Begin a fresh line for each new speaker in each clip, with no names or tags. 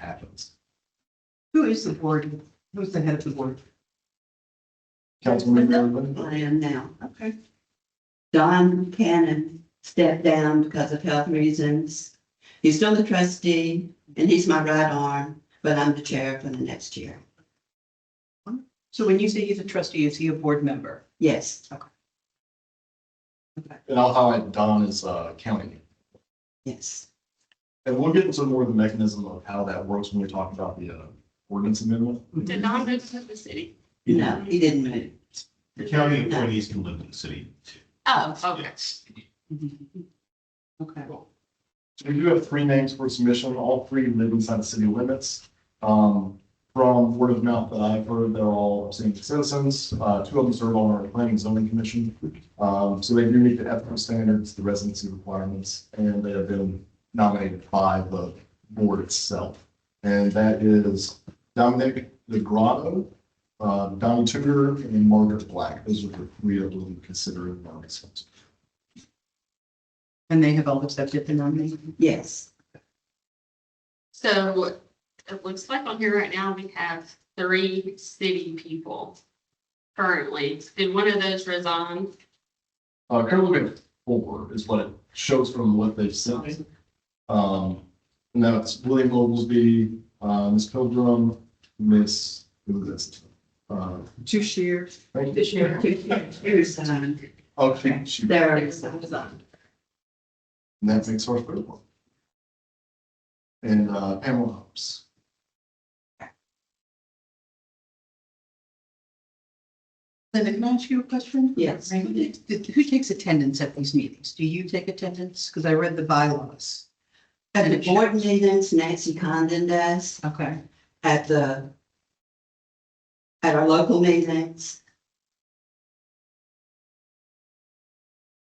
happens.
Who is the board? Who's the head of the board?
Councilmember
who
Urban,
I am now.
Okay.
Don Cannon stepped down because of health reasons. He's still the trustee and he's my right arm, but I'm the chair for the next year.
So when you say he's a trustee, is he a board member?
Yes,
and I'll highlight Don as uh, county.
yes.
And we'll get into more of the mechanism of how that works when we talk about the uh, ordinance amendment.
Did Don move to the city?
No, he didn't move.
The county employees can live in the city.
Oh, okay.
Mm-hmm. Okay.
So we do have three names for submission, all three live inside the city limits. Um, from word of mouth that I've heard, they're all abstaining citizens, uh, two of them serve on our planning and zoning commission. Um, so they do meet the ethical standards, the residency requirements, and they have been nominated by the board itself. And that is Dominic DeGrotto, uh, Don Tudor, and Margaret Black, those are the three of them considered nominees.
And they have all accepted the nomination?
Yes,
So it looks like on here right now, we have three city people currently. Did one of those resign?
Uh, currently at four is what it shows from what they've sent me. Um, and that's William Oglesby, uh, Ms. Pilgrim, Miss, who is this? Uh,
Two shares. uh,
thank you.
This year.
he resigned.
Okay, oh, she, and
There
They
is.
resigned.
that makes her third one. And, uh, Pamela Hobbs.
Linda, can I ask you a question?
Yes.
Who takes- Who takes attendance at these meetings? Do you take attendance? Because I read the bylaws.
At the board meetings, Nancy Condon does,
Okay.
at the, at our local meetings.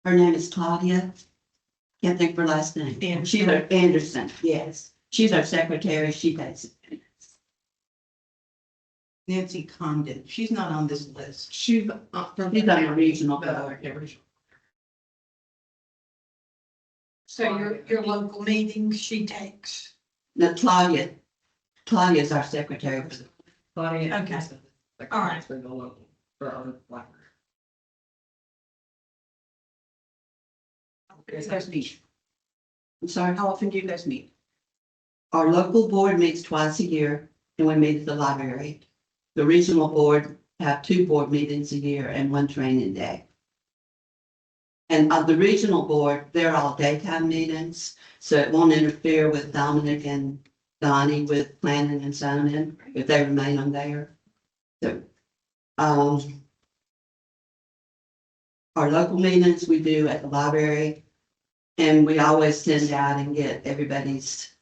Her name is Claudia. Can't think of her last name. She's our Anderson, yes. She's our secretary. She does.
Nancy Condon, she's not on this list.
She's uh, from.
She's on the regional
Uh,
board.
yeah, regional.
So your-
your local meetings she takes.
No, Claudia. Claudia is our secretary. for the-
Claudia. Okay. All right.
For the local, for our library.
You guys meet.
I'm sorry.
How often do you guys meet?
Our local board meets twice a year and we meet at the library. The regional board have two board meetings a year and one training day. And of the regional board, they're all daytime meetings, so it won't interfere with Dominic and Donnie with planning and zoning if they remain on there. So, um, our local meetings we do at the library and we always send out and get everybody's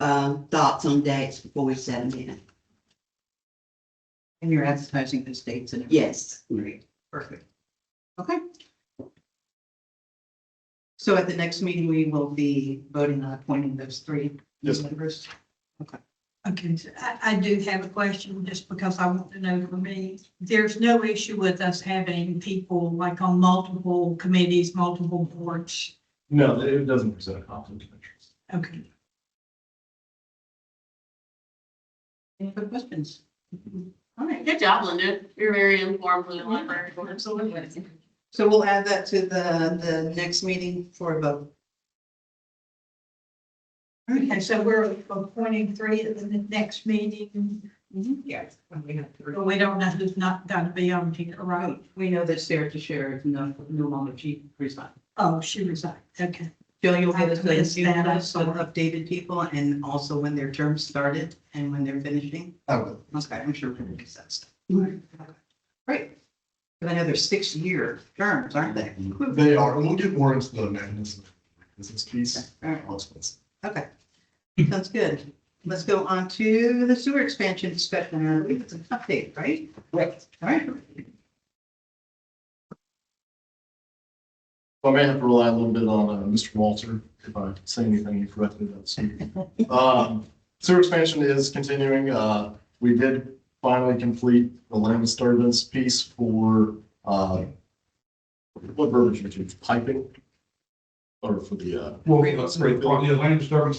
um, thoughts on dates before we set them in.
And you're advertising those dates and. everything?
Yes.
Great, perfect. Okay. So at the next meeting, we will be voting on appointing those three
Yes.
members.
Okay, so I, I do have a question, just because I want to know for me. There's no issue with us having people like on multiple committees, multiple boards.
No, it doesn't present a conflict of interest.
Okay.
Any other questions? All right,
Good job, Linda. You're very informed with the library. Absolutely.
so we'll add that to the, the next meeting for a vote.
Okay, so we're appointing three at the next meeting,
Yes. We have three.
but we don't know who's not gonna be on here, right?
Right, we know that Sarah Teixeira is no, no longer chief respond.
Oh, she resigned, okay.
Jill, you'll get us
I
those
missed
new
that, I'm
lists of
sorry.
updated people and also when their term started and when they're finishing.
I would.
Okay, I'm sure we'll get that stuff. Great. Because I know they're six-year terms, aren't they?
They are, and we'll get more into the mechanism, this is piece.
All right.
I'll explain.
Okay, sounds good. Let's go on to the sewer expansion discussion. I believe it's an update, right? Right. All right.
I may have to rely a little bit on uh, Mr. Walter if I say anything incorrectly. that's- Um, Sewer expansion is continuing. Uh, We did finally complete the land disturbance piece for uh, what verbiage would you choose? piping? Or for the. uh,
Well,
Spray
the
filling?
land disturbance